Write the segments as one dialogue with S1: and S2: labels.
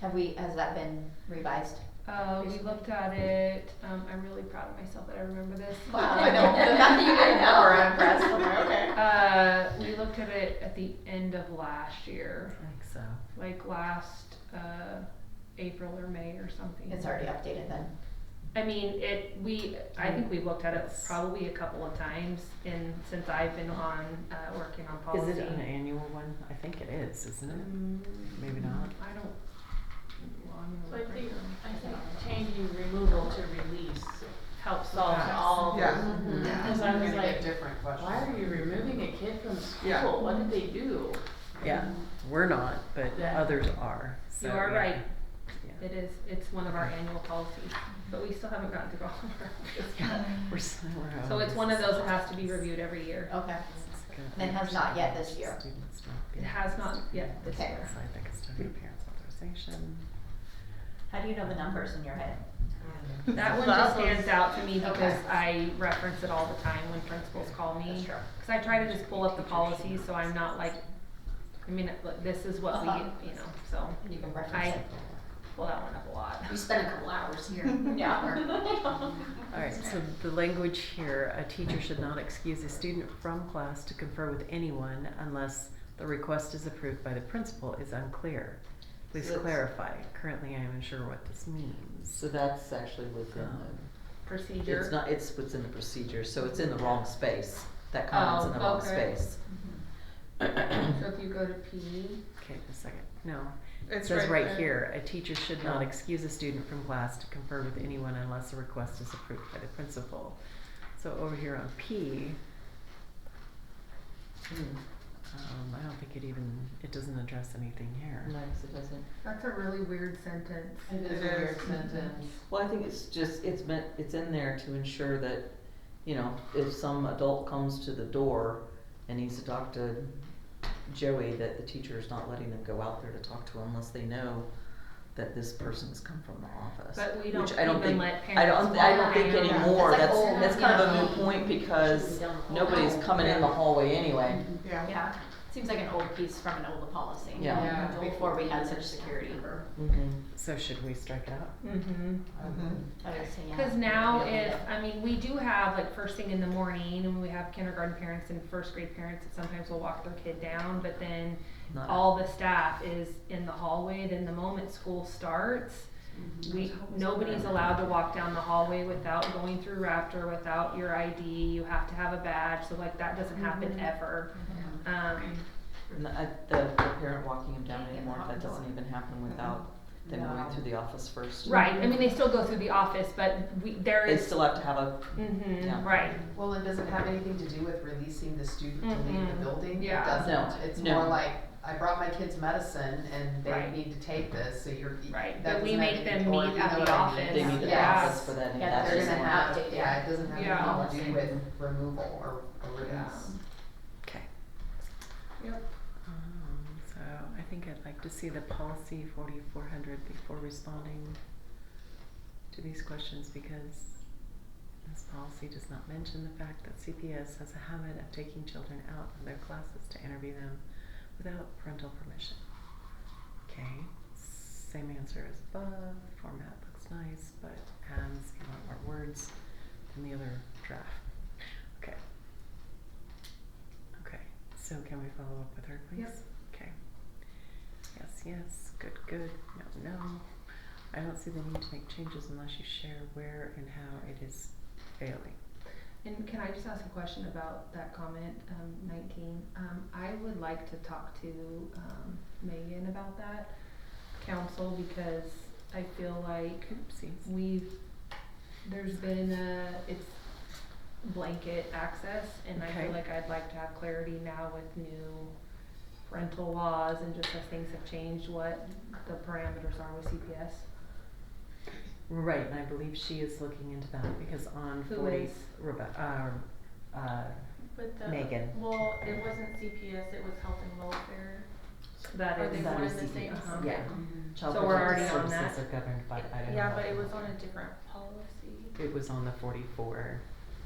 S1: Have we, has that been revised?
S2: Uh, we looked at it, um, I'm really proud of myself that I remember this.
S1: Wow.
S3: I know. The fact that you didn't know, I'm impressed. I'm like, okay.
S2: Uh, we looked at it at the end of last year,
S4: I think so.
S2: like last, uh, April or May or something.
S1: It's already updated then.
S2: I mean, it, we, I think we looked at it probably a couple of times in, since I've been on, uh, working on policy.
S4: Is it an annual one? I think it is, isn't it?
S2: Mm,
S4: Maybe
S1: Mm-hmm.
S4: not.
S2: I don't, well, I'm
S3: So
S2: gonna
S3: I
S2: look right
S3: think,
S2: now.
S3: I think changing removal to release helps solve
S2: Yes.
S3: all.
S5: Yeah.
S1: Mhm.
S3: Yeah.
S5: Because
S3: Because I was
S5: gonna get
S3: like,
S5: different questions.
S3: why are you removing a kid from school?
S5: Yeah.
S3: What did they do?
S4: Yeah, we're not, but
S3: Yeah.
S4: others are. so,
S2: You are
S4: yeah.
S2: right,
S4: Yeah.
S2: it is, it's one of our annual policies, but we still haven't gotten to all of our.
S4: Yeah, we're s- we're
S2: So it's
S4: always-
S2: one of those that has to be reviewed every year.
S1: Okay.
S4: it's good.
S1: And has not yet this year.
S4: Students not
S2: It
S4: being-
S2: has not yet this
S1: Okay.
S2: year.
S4: So I think it's time for parents authorization.
S1: How do you know the numbers in your head?
S2: That one just
S5: That was-
S2: stands out to me because
S1: Okay.
S2: I reference it all the time when principals call me.
S1: That's true.
S2: Cause I try to just pull up the policies, so I'm not like, I mean, like, this is what we,
S1: Uh-huh.
S2: you know, so
S1: You can
S2: I
S1: reference it.
S2: pull that one up a lot.
S6: We spent a couple hours here.
S1: Yeah.
S4: All right, so the language here, a teacher should not excuse a student from class to confer with anyone unless the request is approved by the principal is unclear. Please
S5: So it's-
S4: clarify. Currently, I am unsure what this means.
S7: So that's actually within the, it's
S2: Procedure.
S7: not, it's within the procedure, so it's in the wrong space. That comment's in the
S2: Oh,
S7: wrong
S2: okay.
S7: space.
S2: So if you go to P,
S4: Okay, a second. No. It
S5: It's
S4: says
S5: right
S4: right
S5: there.
S4: here, a teacher should not
S7: Oh.
S4: excuse a student from class to confer with anyone unless a request is approved by the principal. So over here on P,
S7: Hmm.
S4: um, I don't think it even, it doesn't address anything here.
S7: No, 'cause it doesn't.
S2: that's a really weird sentence.
S5: It is a weird sentence.
S7: Well, I think it's just, it's meant, it's in there to ensure that, you know, if some adult comes to the door and needs to talk to Joey, that the teacher is not letting them go out there to talk to unless they know that this person's come from the office.
S2: But we
S7: Which
S2: don't
S7: I don't
S2: even
S7: think-
S2: let
S7: I don't,
S2: parents
S7: I don't
S2: walk
S7: think
S2: in.
S7: anymore,
S6: It's like
S7: that's,
S6: old,
S7: that's kind of a moot
S6: yeah.
S7: point because
S6: Should be done with old
S7: nobody's
S6: now.
S7: coming in the hallway anyway.
S5: Yeah.
S1: Yeah, seems like an old piece from an old policy.
S7: Yeah.
S5: Yeah.
S1: Before we had such security.
S7: Mhm.
S4: So should we strike it out?
S2: Mhm.
S5: Mhm.
S1: I would say, yeah.
S2: Because now
S1: Yeah.
S2: if, I mean, we do have like first thing in the morning and we have kindergarten parents and first grade parents that sometimes will walk their kid down, but then
S7: Not-
S2: all the staff is in the hallway, then the moment school starts,
S7: Mm-hmm.
S2: we, nobody's allowed to walk down the hallway without going through Raptor, without your ID, you have to have a badge, so like that doesn't
S7: Mm-hmm.
S2: happen ever. Um,
S7: And I- The, the parent walking him down anymore, that doesn't even happen without them going through the office first.
S2: right, I mean, they still go through the office, but we, there
S7: Mm-hmm. They
S2: is,
S7: still have to have a,
S2: mhm,
S7: Yeah.
S2: right,
S5: Well, and does it have anything to do with releasing the student to leave the
S2: Mhm.
S5: building?
S2: Yeah.
S5: It doesn't.
S7: No.
S5: It's
S7: No.
S5: more like, I brought my kids medicine and they
S2: Right.
S5: need to take this, so you're.
S2: Right.
S5: that
S2: But we
S5: doesn't have
S2: make them
S5: anything- or
S2: meet
S5: you
S2: at
S5: know
S2: the
S5: what I mean.
S2: office.
S7: they need the
S5: Yeah.
S7: office for that, and
S1: Yeah,
S7: that's
S5: They're
S7: just
S5: gonna
S7: more.
S1: have
S5: have,
S1: to-
S5: yeah, it doesn't have
S2: Yeah.
S5: anything to do with removal or, or release.
S4: Okay.
S2: Yep.
S4: Um, so I think I'd like to see the policy forty-four hundred before responding to these questions because this policy does not mention the fact that CPS has a habit of taking children out of their classes to interview them without parental permission. Okay, same answer as above, format looks nice, but adds a lot more words than the other draft. Okay. Okay, so can we follow up with her, please?
S2: Yep.
S4: Okay. Yes, yes, good, good, no, no. I don't see the need to make changes unless you share where and how it is failing.
S2: And can I just ask a question about that comment, um, nineteen? Um, I would like to talk to, um, Megan about that, council, because I feel like
S4: Oopsies.
S2: we've, there's been a, it's blanket access, and I
S4: Okay.
S2: feel like I'd like to have clarity now with new parental laws and just as things have changed, what the parameters are with CPS.
S4: Right, and I believe she is looking into that because on
S2: Who
S4: forty,
S2: is?
S4: Rebe- uh, uh,
S3: But the,
S4: Megan.
S3: well, it wasn't CPS, it was health and welfare.
S2: That
S3: Are
S2: is.
S3: they
S4: That
S3: one
S4: is
S3: and the same?
S2: Uh-huh.
S4: yeah.
S3: Mm-hmm.
S4: Child
S2: So we're already
S4: Protective
S2: on
S4: Services
S2: that?
S4: are governed by Idaho.
S3: Yeah, but
S4: law.
S3: it was on a different policy.
S4: It was on the forty-four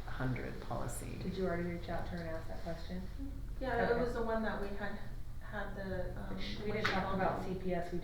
S4: hundred policy.
S2: Did you already reach out to her and ask that question?
S3: Yeah, it
S2: Okay.
S3: was the one that we had, had the, um.
S2: We didn't talk about CPS, we